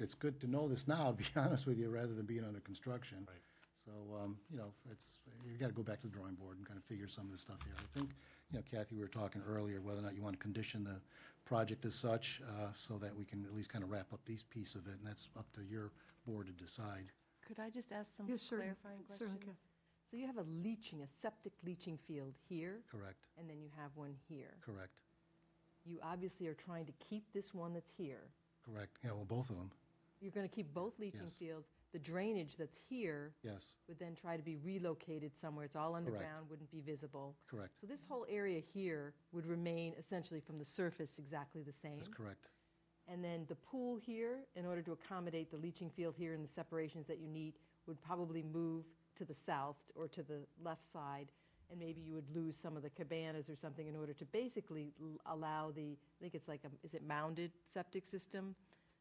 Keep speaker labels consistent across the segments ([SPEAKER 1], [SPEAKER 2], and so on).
[SPEAKER 1] it's good to know this now, to be honest with you, rather than being under construction.
[SPEAKER 2] Right.
[SPEAKER 1] So, um, you know, it's, you gotta go back to the drawing board and kind of figure some of this stuff here. I think, you know, Kathy, we were talking earlier, whether or not you want to condition the project as such, uh, so that we can at least kind of wrap up these piece of it, and that's up to your board to decide.
[SPEAKER 3] Could I just ask some
[SPEAKER 4] Yes, certainly,
[SPEAKER 3] clarifying
[SPEAKER 4] certainly,
[SPEAKER 3] questions?
[SPEAKER 4] Kathy.
[SPEAKER 3] So you have a leaching, a septic leaching field here,
[SPEAKER 1] Correct,
[SPEAKER 3] and then you have one here.
[SPEAKER 1] correct,
[SPEAKER 3] You obviously are trying to keep this one that's here.
[SPEAKER 1] correct. Yeah, well, both of them,
[SPEAKER 3] You're going to keep both leaching
[SPEAKER 1] Yes.
[SPEAKER 3] fields. The drainage that's here
[SPEAKER 1] yes,
[SPEAKER 3] would then try to be relocated somewhere. It's all underground, wouldn't be visible.
[SPEAKER 1] correct,
[SPEAKER 3] So this whole area here would remain essentially from the surface exactly the same.
[SPEAKER 1] that's correct,
[SPEAKER 3] And then the pool here, in order to accommodate the leaching field here and the separations that you need, would probably move to the south or to the left side, and maybe you would lose some of the cabanas or something in order to basically l- allow the, I think it's like, a is it mounded septic system,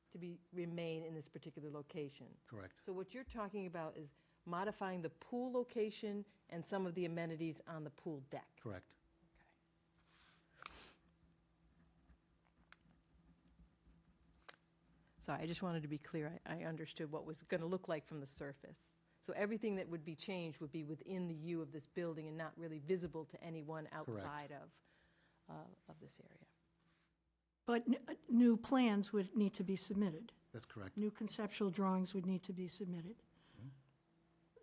[SPEAKER 3] to be, remain in this particular location.
[SPEAKER 1] correct,
[SPEAKER 3] So what you're talking about is modifying the pool location and some of the amenities on the pool deck.
[SPEAKER 1] correct.
[SPEAKER 3] Sorry, I just wanted to be clear. I I understood what was going to look like from the surface. So everything that would be changed would be within the U of this building and not really visible to anyone outside of, uh, of this area.
[SPEAKER 4] But n- uh, new plans would need to be submitted.
[SPEAKER 1] That's correct,
[SPEAKER 4] New conceptual drawings would need to be submitted.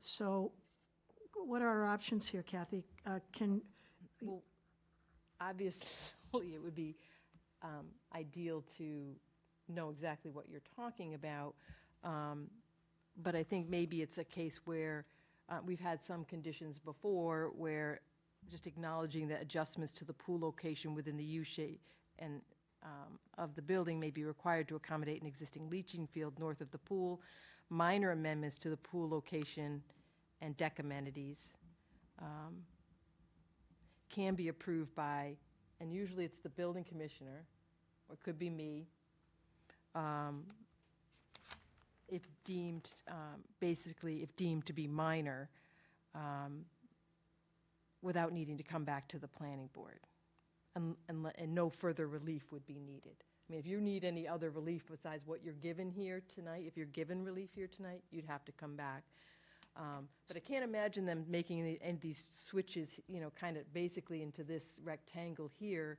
[SPEAKER 4] So what are our options here, Kathy? Uh, Can,
[SPEAKER 3] Obviously, it would be um, ideal to know exactly what you're talking about, um, but I think maybe it's a case where uh, we've had some conditions before where just acknowledging that adjustments to the pool location within the U shape and um, of the building may be required to accommodate an existing leaching field north of the pool, minor amendments to the pool location and deck amenities um, can be approved by, and usually it's the building commissioner, or it could be me, um, if deemed, um, basically, if deemed to be minor, um, without needing to come back to the planning board. And, and, le- um, and no further relief would be needed. I mean, if you need any other relief besides what you're given here tonight, if you're given relief here tonight, you'd have to come back. Um, But I can't imagine them making any- any of these switches, you know, kind of basically into this rectangle here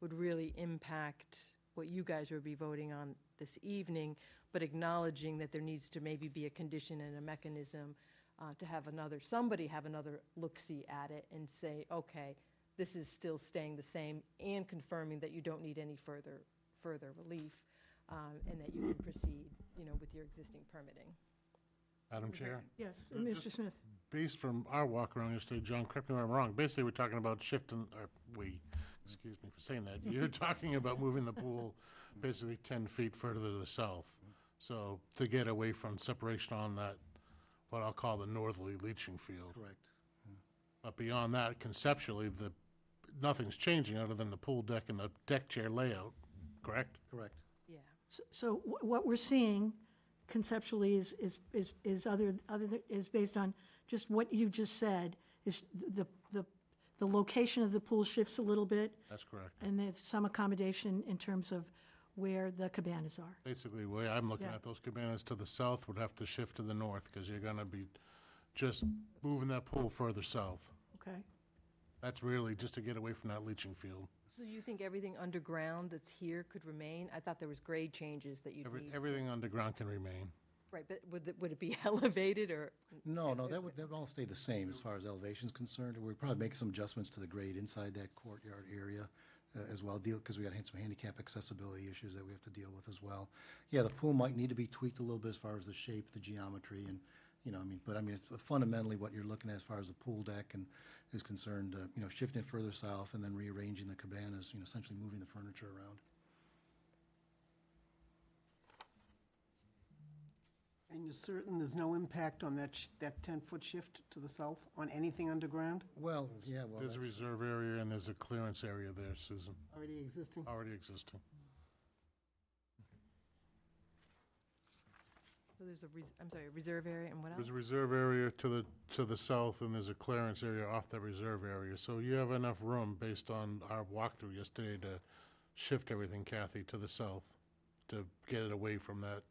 [SPEAKER 3] would really impact what you guys would be voting on this evening, but acknowledging that there needs to maybe be a condition and a mechanism uh, to have another, somebody have another look-see at it and say, okay, this is still staying the same, and confirming that you don't need any further, further relief, um, and that you can proceed, you know, with your existing permitting.
[SPEAKER 2] Madam Chair,
[SPEAKER 4] yes,
[SPEAKER 2] So
[SPEAKER 4] Mr.
[SPEAKER 2] just-
[SPEAKER 4] Smith?
[SPEAKER 2] based from our walk around yesterday, John, correct me if I'm wrong, basically, we're talking about shifting, or we, excuse me for saying that, you're talking about moving the pool basically 10 feet further to the south. So to get away from separation on that, what I'll call the northerly leaching field.
[SPEAKER 1] correct,
[SPEAKER 2] But beyond that, conceptually, the, nothing's changing other than the pool deck and the deck chair layout, correct?
[SPEAKER 1] correct.
[SPEAKER 3] Yeah.
[SPEAKER 4] S- So wh- what we're seeing conceptually is, is, is is other, other, th- is based on just what you just said, is the, the, the location of the pool shifts a little bit,
[SPEAKER 2] That's correct.
[SPEAKER 4] and there's some accommodation in terms of where the cabanas are.
[SPEAKER 2] Basically, the way I'm looking
[SPEAKER 4] Yeah.
[SPEAKER 2] at those cabanas to the south would have to shift to the north, because you're gonna be just moving that pool further south.
[SPEAKER 4] Okay.
[SPEAKER 2] That's really just to get away from that leaching field.
[SPEAKER 3] So you think everything underground that's here could remain? I thought there was grade changes that you'd
[SPEAKER 2] Every,
[SPEAKER 3] need.
[SPEAKER 2] everything underground can remain.
[SPEAKER 3] Right, but would, it- would it be elevated or?
[SPEAKER 1] No, no, that would, that would all stay the same as far as elevation's concerned. We'd probably make some adjustments to the grade inside that courtyard area uh, as well, deal, because we got some handicap accessibility issues that we have to deal with as well. Yeah, the pool might need to be tweaked a little bit as far as the shape, the geometry, and, you know, I mean, but I mean, it's fundamentally what you're looking at as far as the pool deck and is concerned, uh, you know, shifting it further south and then rearranging the cabanas, you know, essentially moving the furniture around.
[SPEAKER 5] And you're certain there's no impact on that, sh- that 10-foot shift to the south on anything underground
[SPEAKER 1] Well, yeah, well,
[SPEAKER 2] There's a
[SPEAKER 1] that's-
[SPEAKER 2] reserve area and there's a clearance area there, Susan,
[SPEAKER 5] already existing?
[SPEAKER 2] already existing.
[SPEAKER 3] So there's a, res- I'm sorry, a reserve area and what else?
[SPEAKER 2] There's a reserve area to the, to the south and there's a clearance area off that reserve area. So you have enough room based on our walkthrough yesterday to shift everything, Kathy, to the south, to get it away from that